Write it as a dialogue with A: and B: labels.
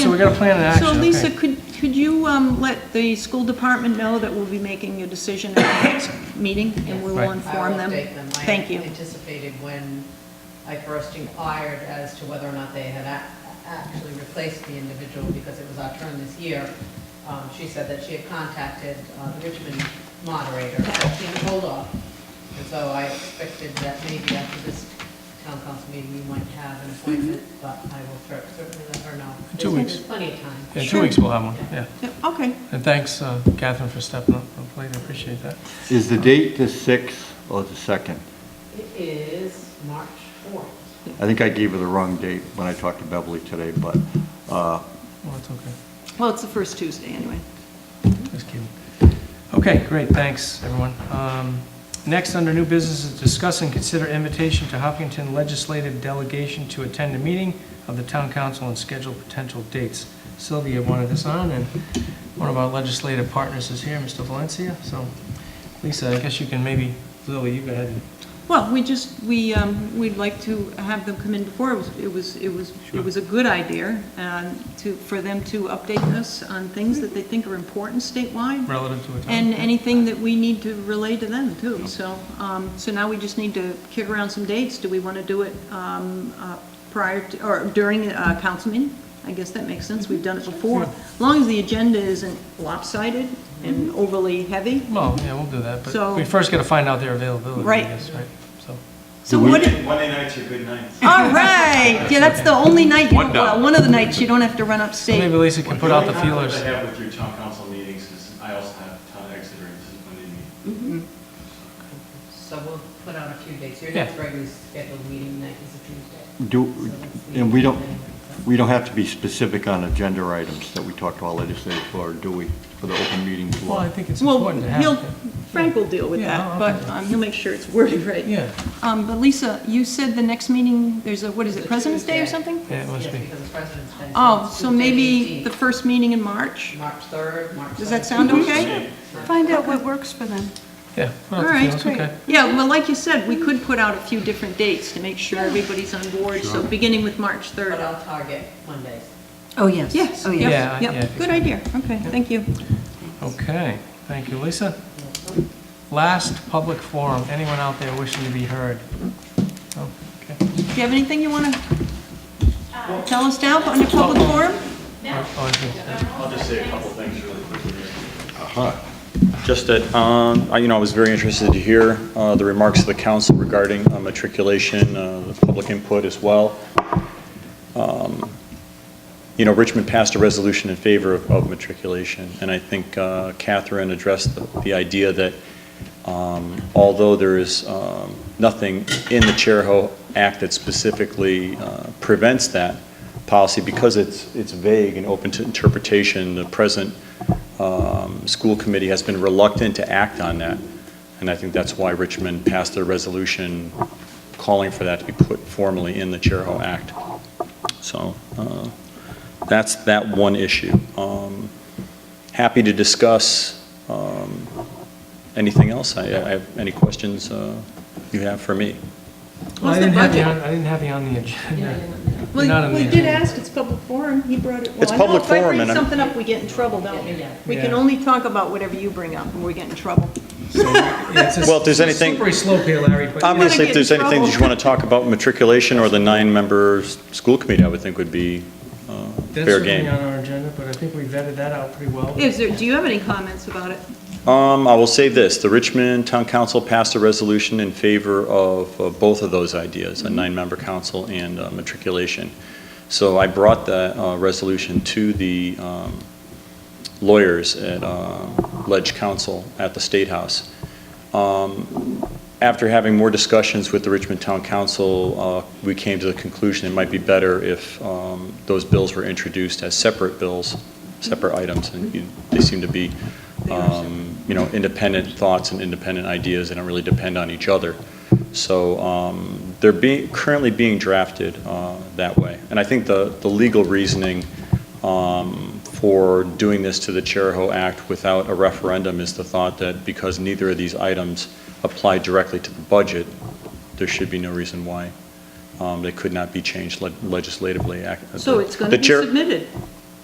A: got a plan in action,
B: So Lisa,
A: okay.
B: could, could you um, let the school department know that we'll be making a decision at the next meeting, and we
A: Right.
B: will
A: I
B: inform them?
C: I will update them.
B: Thank you.
C: I anticipated when I first inquired as to whether or not they had a- actually replaced the individual, because it was our turn this year. Um, She said that she had contacted uh, the Richmond moderator, and hold off. And so I expected that maybe after this town council meeting, you might have an appointment,
B: Mm-hmm.
C: but I will cer- certainly let her know.
A: In two
C: There's-
A: weeks.
C: There's plenty of time.
A: Yeah, two
B: Sure.
A: weeks we'll have one, yeah.
B: Yeah, Okay,
A: And thanks, uh, Catherine, for stepping up, I really appreciate that.
D: Is the date the 6th or the 2nd?
C: It is March 4th.
D: I think I gave her the wrong date when I talked to Beverly today, but, uh,
A: Well, it's okay,
B: well, it's the first Tuesday, anyway.
A: just kidding. Okay, great, thanks, everyone. Um, Next, under new business, is discuss and consider invitation to Hopkinton Legislative Delegation to attend a meeting of the town council and schedule potential dates. Sylvia wanted this on, and one of our legislative partners is here, Mr. Valencia, so Lisa, I guess you can maybe, Lily, you go ahead and
B: Well, we just, we, um, we'd like to have them come in before, it was, it was, it was, it was a good idea, um, to, for them to update us on things that they think are important statewide,
A: relative to a town.
B: and anything that we need to relay to them, too. So, um, so now we just need to kick around some dates, do we want to do it, um, uh, prior, to or during a council meeting? I guess that makes sense, we've done it before, as long as the agenda isn't lopsided and overly heavy.
A: Well, yeah, we'll do that, but
B: So-
A: we first got to find out their availability, I
B: Right.
A: guess, right? So,
B: So what,
E: Monday nights are good nights.
B: All right, yeah, that's the only night, you don't-
F: One
B: well,
F: dollar.
B: one of the nights you don't have to run
A: so maybe
B: upstate.
A: Lisa can put out the
E: The
A: feelers.
E: only conflict I have with your town council meetings is I also have town Exeter, and this is Monday meeting.
C: So we'll put on a few dates. Your
A: Yeah.
C: next regularly scheduled meeting night is a Tuesday.
D: do,
C: So that's the-
D: and we don't, we don't have to be specific on agenda items that we talk to our legislators for, do we, for the open meeting
A: Well, I
D: law?
A: think it's
B: Well,
A: important to have.
B: he'll,
A: it.
B: Frank will deal with
A: Yeah,
B: that,
A: I'll-
B: but um, he'll make sure it's worded right.
A: Yeah,
B: Um, but Lisa, you said the next meeting, there's a, what is
C: It's
B: it,
C: a
B: President's Day or
C: Tuesday.
B: something?
A: Yeah, it must
C: Yes,
A: be.
C: because of President's Day.
B: Oh,
C: it's
B: so
C: Tuesday,
B: maybe
C: 18th,
B: the first meeting in March?
C: March 3rd, March 7th.
B: Does that sound okay?
G: Find out what works for them.
A: yeah, put
B: All
A: out the
B: right,
A: feelers, okay.
B: Yeah, well, like you said, we could put out a few different dates to make sure everybody's on board, so beginning with March
C: But
B: 3rd.
C: I'll target Mondays.
G: Oh, yes.
B: Yes,
G: Oh, yes.
A: Yeah, I-
B: yes,
A: yeah, I think
B: yep, good
A: so.
B: idea, okay, thank you.
A: Okay, thank you, Lisa. Last public forum, anyone out there wishing to be heard? Oh, okay.
B: Do you have anything you want to tell us now under public forum?
A: Oh, I see.
E: I'll just say a couple things really quickly here.
H: Just that, um, I- you know, I was very interested to hear uh, the remarks of the council regarding uh, matriculation, uh, the public input as well. Um, You know, Richmond passed a resolution in favor of- of matriculation, and I think uh, Catherine addressed the- the idea that um, although there is um, nothing in the Charahoe Act that specifically uh, prevents that policy, because it's it's vague and open to interpretation, the present um, school committee has been reluctant to act on that, and I think that's why Richmond passed a resolution calling for that to be put formally in the Charahoe Act. So uh, that's that one issue. Um, Happy to discuss um, anything else. I I have any questions uh, you have for me.
A: Well,
B: How's
A: I
B: the
A: didn't have you
B: budget?
A: on, I didn't have you on the agenda. You're not
B: Well,
A: on
B: we
A: the
B: did
A: agenda.
B: ask, it's public forum, he brought it. well,
H: It's
B: I know
H: public
B: If I
H: forum,
B: bring
H: and I'm-
B: something up, we get in trouble, don't we? We can
A: Yeah.
B: only talk about whatever you bring up, and we get in trouble.
A: Yeah, it's a-
H: Well, if
A: it's
H: there's
A: a
H: anything-
A: Slippery slope here, Larry, but.
H: Obviously,
B: get in
H: if there's anything that you
B: trouble.
H: want to talk about matriculation or the nine-member s- school committee, I would think would be uh, fair game.
A: That's certainly on our agenda, but I think we vetted that out pretty well.
B: Is there, do you have any comments about it?
H: Um, I will say this, the Richmond Town Council passed a resolution in favor of uh, both of those ideas, a nine-member council and uh, matriculation. So I brought that uh, resolution to the um, lawyers at um, Ledge Council at the State House. Um, After having more discussions with the Richmond Town Council, uh, we came to the conclusion it might be better if um, those bills were introduced as separate bills, separate items, and you- they seem to be um, you know, independent thoughts and independent ideas, they don't really depend on each other. So um, they're being, currently being drafted uh, that way. And I think the, the legal reasoning um, for doing this to the Charahoe Act without a referendum is the thought that because neither of these items apply directly to the budget, there should be no reason why um, they could not be changed le- legislatively. ac-
B: So it's going to
H: The
B: be
H: Char-
B: submitted.